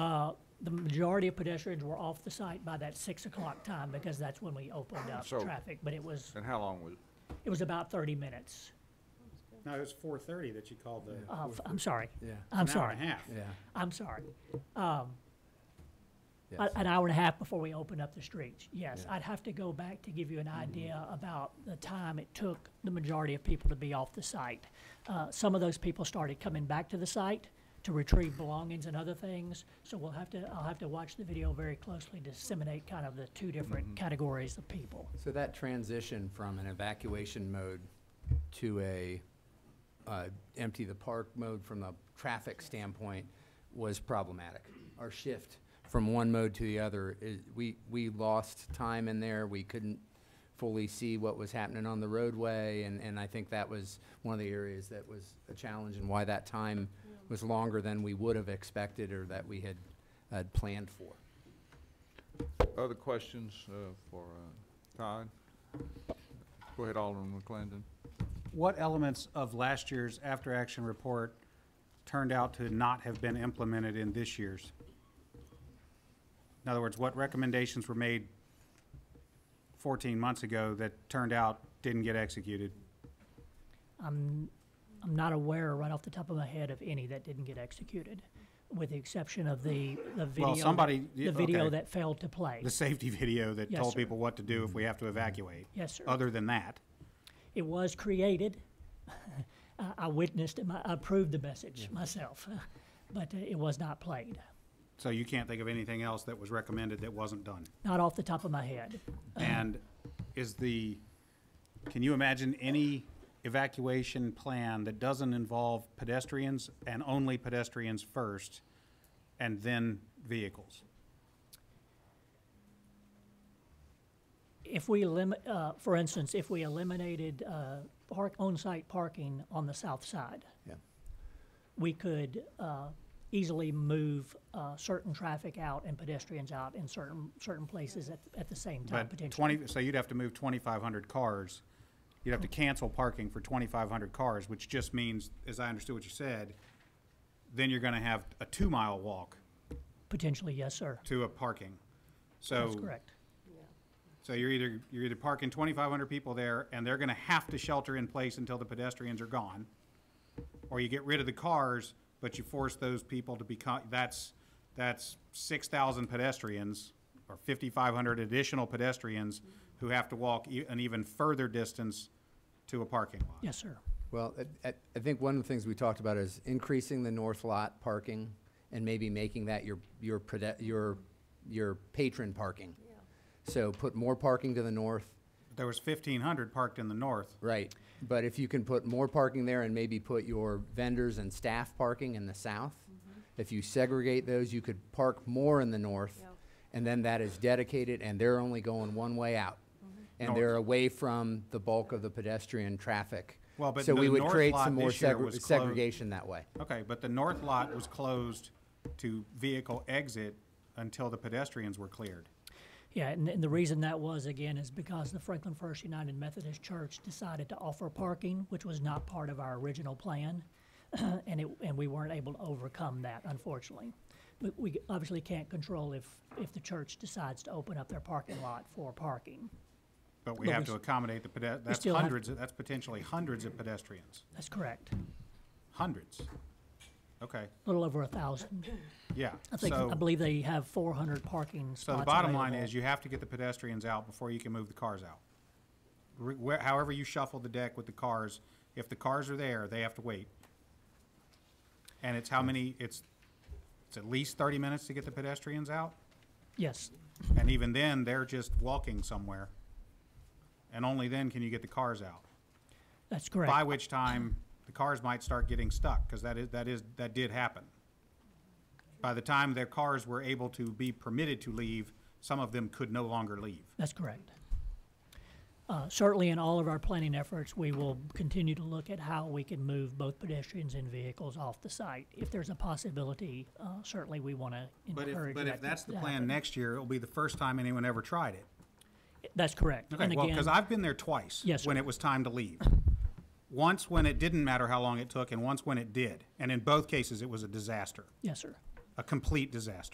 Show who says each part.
Speaker 1: Uh, the majority of pedestrians were off the site by that six o'clock time because that's when we opened up
Speaker 2: So-
Speaker 1: traffic. But it was,
Speaker 2: And how long was,
Speaker 1: it was about thirty minutes.
Speaker 3: No, it was four thirty that you called the,
Speaker 1: Uh, f- I'm sorry.
Speaker 4: Yeah,
Speaker 1: I'm
Speaker 3: an hour
Speaker 1: sorry.
Speaker 3: and a half.
Speaker 4: yeah,
Speaker 1: I'm sorry. Um,
Speaker 4: yes.
Speaker 1: A- An hour and a half before we opened up the streets, yes.
Speaker 4: Yeah.
Speaker 1: I'd have to go back to give you an
Speaker 3: Mm-hmm.
Speaker 1: idea about the time it took the majority of people to be off the site. Uh, Some of those people started coming back to the site to retrieve belongings and other things, so we'll have to, I'll have to watch the video very closely to disseminate kind of the two
Speaker 3: Mm-hmm.
Speaker 1: different categories of people.
Speaker 4: So that transition from an evacuation mode to a uh, empty the park mode from the traffic standpoint was problematic. Our shift from one mode to the other, is- we, we lost time in there. We couldn't fully see what was happening on the roadway, and, and I think that was one of the areas that was a challenge and why that time was longer than we would have expected or that we had, had planned for.
Speaker 2: other questions uh, for uh, Todd? Go ahead, Alderman McClendon.
Speaker 3: What elements of last year's after-action report turned out to not have been implemented in this year's? In other words, what recommendations were made fourteen months ago that turned out didn't get executed?
Speaker 1: I'm not aware right off the top of my head of any that didn't get executed, with the exception of the, the video. that-
Speaker 3: somebody-
Speaker 1: The video
Speaker 3: okay.
Speaker 1: that failed to play.
Speaker 3: The safety video that
Speaker 1: Yes,
Speaker 3: told
Speaker 1: sir.
Speaker 3: people what to do if we have to evacuate?
Speaker 1: Yes, sir.
Speaker 3: Other than that?
Speaker 1: It was created. I I witnessed it, my- I approved the message myself, but uh, it was not played.
Speaker 3: So you can't think of anything else that was recommended that wasn't done?
Speaker 1: Not off the top of my head.
Speaker 3: And is the, can you imagine any evacuation plan that doesn't involve pedestrians and only pedestrians first and then vehicles?
Speaker 1: If we limit, uh, for instance, if we eliminated, uh, park, on-site parking on the south side,
Speaker 4: Yeah.
Speaker 1: we could, uh, easily move, uh, certain traffic out and pedestrians out in certain, certain places at, at the same time
Speaker 3: But
Speaker 1: potentially.
Speaker 3: twenty, so you'd have to move twenty-five hundred cars. You'd
Speaker 1: Oh.
Speaker 3: have to cancel parking for twenty-five hundred cars, which just means, as I understood what you said, then you're gonna have a two-mile walk
Speaker 1: Potentially, yes, sir.
Speaker 3: to a parking. So.
Speaker 1: That's correct.
Speaker 3: So you're either, you're either parking twenty-five hundred people there, and they're gonna have to shelter in place until the pedestrians are gone. Or you get rid of the cars, but you force those people to become, that's, that's six thousand pedestrians, or fifty-five hundred additional pedestrians who have to walk e- an even further distance to a parking lot.
Speaker 1: Yes, sir.
Speaker 4: Well, I- I I think one of the things we talked about is increasing the north lot parking and maybe making that your, your, prede- your, your patron parking. So put more parking to the north,
Speaker 3: There was fifteen hundred parked in the north.
Speaker 4: right, but if you can put more parking there and maybe put your vendors and staff parking in the south, if you segregate those, you could park more in the north,
Speaker 5: Yep.
Speaker 4: and then that is dedicated, and they're only going one way out. And they're away from the bulk of the pedestrian traffic.
Speaker 3: Well, but
Speaker 4: So
Speaker 3: the
Speaker 4: we would
Speaker 3: north
Speaker 4: create
Speaker 3: lot
Speaker 4: some more
Speaker 3: this year
Speaker 4: segre-
Speaker 3: was closed.
Speaker 4: segregation that way.
Speaker 3: Okay, but the north lot was closed to vehicle exit until the pedestrians were cleared.
Speaker 1: Yeah, and, and the reason that was, again, is because the Franklin First United Methodist Church decided to offer parking, which was not part of our original plan, and it, and we weren't able to overcome that, unfortunately. But we obviously can't control if, if the church decides to open up their parking lot for parking.
Speaker 3: But we
Speaker 1: But
Speaker 3: have
Speaker 1: we
Speaker 3: to
Speaker 1: s-
Speaker 3: accommodate the pede, that's
Speaker 1: still have-
Speaker 3: hundreds, of- that's potentially hundreds of pedestrians,
Speaker 1: That's correct.
Speaker 3: hundreds. Okay,
Speaker 1: A little over a thousand.
Speaker 3: yeah.
Speaker 1: I think, I
Speaker 3: So,
Speaker 1: believe they have four hundred parking spots
Speaker 3: so the bottom line
Speaker 1: available.
Speaker 3: is you have to get the pedestrians out before you can move the cars out. Re- where- However you shuffle the deck with the cars, if the cars are there, they have to wait. And it's how many, it's, it's at least thirty minutes to get the pedestrians out?
Speaker 1: Yes,
Speaker 3: And even then, they're just walking somewhere. And only then can you get the cars out.
Speaker 1: that's
Speaker 3: by
Speaker 1: correct.
Speaker 3: which time the cars might start getting stuck, because that is, that is, that did happen. By the time their cars were able to be permitted to leave, some of them could no longer leave.
Speaker 1: That's correct. Uh, Certainly, in all of our planning efforts, we will continue to look at how we can move both pedestrians and vehicles off the site. If there's a possibility, uh, certainly we want to
Speaker 3: But
Speaker 1: encourage
Speaker 3: if,
Speaker 1: that.
Speaker 3: but if
Speaker 1: to-
Speaker 3: that's the
Speaker 1: to
Speaker 3: plan
Speaker 1: happen.
Speaker 3: next year, it'll be the first time anyone ever tried it.
Speaker 1: That's correct.
Speaker 3: Okay,
Speaker 1: And
Speaker 3: well, because
Speaker 1: again,
Speaker 3: I've been there twice.
Speaker 1: Yes,
Speaker 3: When
Speaker 1: sir.
Speaker 3: it was time to leave. Once when it didn't matter how long it took, and once when it did. And in both cases, it was a disaster,
Speaker 1: Yes, sir.
Speaker 3: a complete disaster.